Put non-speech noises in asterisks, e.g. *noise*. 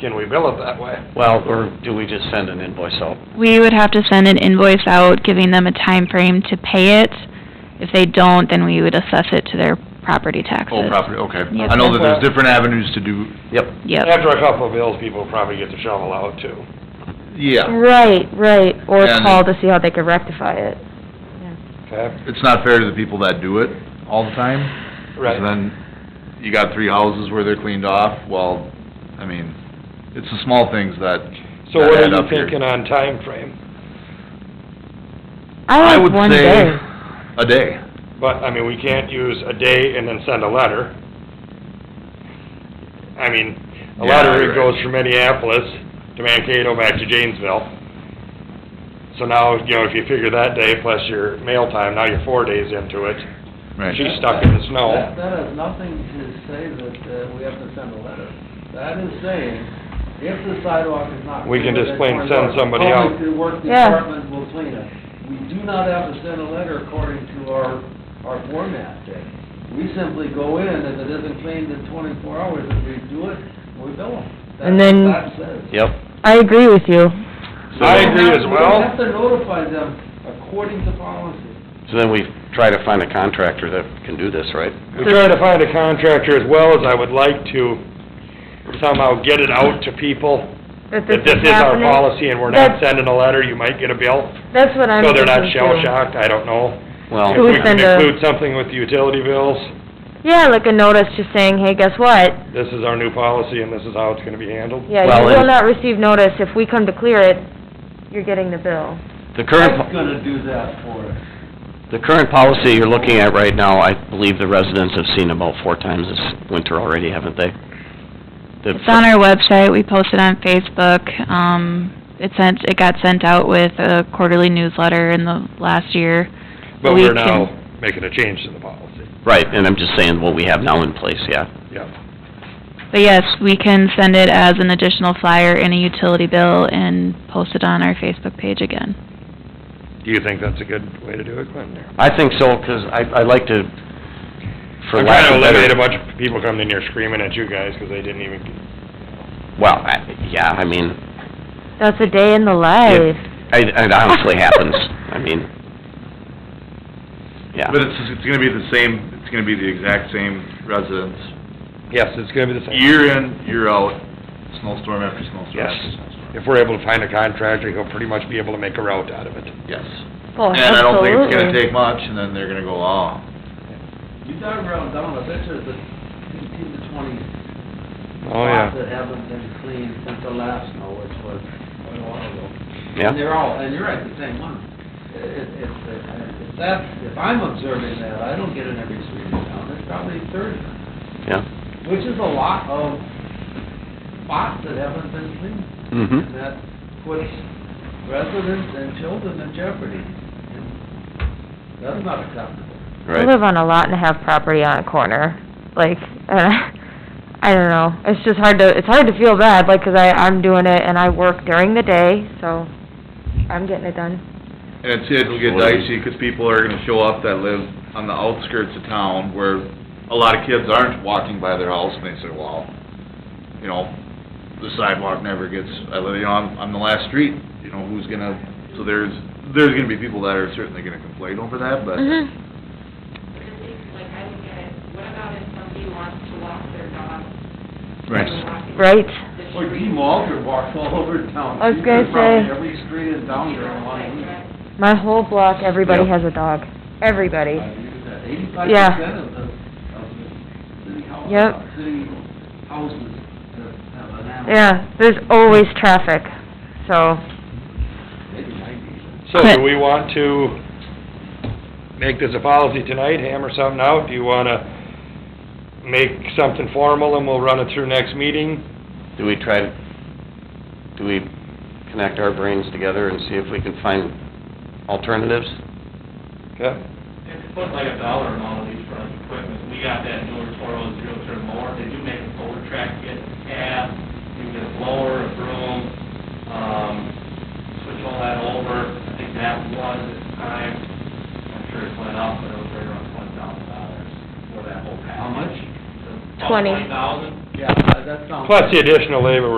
Can we bill it that way? Well, or do we just send an invoice out? We would have to send an invoice out, giving them a time frame to pay it. If they don't, then we would assess it to their property taxes. Oh, property, okay. Yep. I know that there's different avenues to do, Yep. Yep, After a couple of bills, people probably get the shovel out too. yeah. Right, right, or And- call to see how they could rectify it. Okay? It's not fair to the people that do it all the time. 'cause Right. Then you got three houses where they're cleaned off, well, I mean, it's the small things that, So what that are add you up here. thinking on time frame? I I would like one say day. a day. But, I mean, we can't use a day and then send a letter. I mean, a Yeah, letter right. goes from Minneapolis to Mankato back to Janesville. So now, you know, if you figure that day plus your mail time, now you're four days into it. Right. She's stuck in the snow. That- That has nothing to say that uh, we have to send a letter. That is saying, if the sidewalk is not. We can clear, just then plain send somebody out. Public Works Yeah. Department will clean it. We do not have to send a letter according to our, our format there. We simply go in, if it isn't cleaned in twenty-four hours, if we do it, we bill them. And then- That's what that says. Yep. I agree with you. I agree as We have well. to notify them according to policy. So then we try to find a contractor that can do this, right? We try to find a contractor as well as I would like to somehow get it out to people that this is our policy and we're not That's- sending a letter, you might get a bill. That's what I'm So they're not thinking, shell too. shocked, I don't know. Well, If we We can send a- include something with the utility bills, Yeah, like a notice just saying, hey, guess what? this is our new policy and this is how it's gonna be handled. Yeah, Well, you will and- not receive notice. If we come to clear it, you're getting the bill. the current, Mike's gonna do that for us. po- the current policy you're looking at right now, I believe the residents have seen about four times this winter already, haven't they? The it's on our website, we post it on Facebook, um, it sent, it got sent out with a quarterly newsletter in the last year. But We we're can- now making a change to the policy, Right, and I'm just saying what we have now in place, yeah. yeah. But yes, we can send it as an additional flyer in a utility bill and post it on our Facebook page again. Do you think that's a good way to do it, Clinton? or- I think so, 'cause I, I like to, for I'm lack trying to of eliminate a better... bunch of people coming in here screaming at you guys because they didn't even Well, I, yeah, I mean, That's a day in the life. it, it honestly happens, I mean, yeah. But it's, it's gonna be the same, it's gonna be the exact same residents, Yes, it's gonna be the same. year in, year out, snowstorm after snowstorm Yes. after snowstorm. If we're able to find a contractor, he'll pretty much be able to make a route out of it. Yes. Oh, And I don't think it's gonna absolutely. take much, and then they're gonna go, oh, You dug around down, I bet you there's fifteen to twenty Oh, spots that haven't been cleaned since the last snow, which was quite a while ago. Yeah. And they're all, and you're right, the same one. It, it- it's, uh, if that, if I'm observing that, I don't get in every street in town, there's probably thirty, Yeah. which is a lot of spots that haven't been cleaned. And Mm-hmm. that puts residents and children in jeopardy. And That's not acceptable. I Right. live on a lot and have property on a corner. Like, *laughs* uh, I don't know. It's just hard to, it's hard to feel bad, like, 'cause I, I'm doing it and I work during the day, so I'm getting it done. And it's, it'll get dicey, because people are gonna show up that live on the outskirts of town, where a lot of kids aren't walking by their house, and they say, well, you know, the sidewalk never gets, I live, you know, I'm, I'm the last street, you know, who's gonna, so there's, there's gonna be people that are certainly gonna complain over that, but Mm-hmm. Like, I look at it, what about if somebody wants to walk their dog? Right. Right. Or Dean Walter walks all over town. I was He's gonna been probably say- Every street in town during one week. My whole block, everybody Yep. has a dog. Everybody. Eighty-five Yeah. percent of the, of the city hou- Yep. uh, city houses that have an animal. Yeah, there's always traffic, so. Maybe ninety. So Clint. do we want to make this a policy tonight, hammer something out? Do you wanna make something formal and we'll run it through next meeting? Do we try, to do we connect our brains together and see if we can find alternatives? Okay? If you put like a dollar amount on each front of equipment, we got that newer Toro zero turn mower, they do make a solar track kit, cab, you get a blower, a broom, um, switch all that over, I think that was at the time, I'm sure it went up, but it was right around twenty thousand dollars for that whole package. How much? About Twenty. Twenty thousand? Yeah, uh, that sounds. Plus the additional labor we're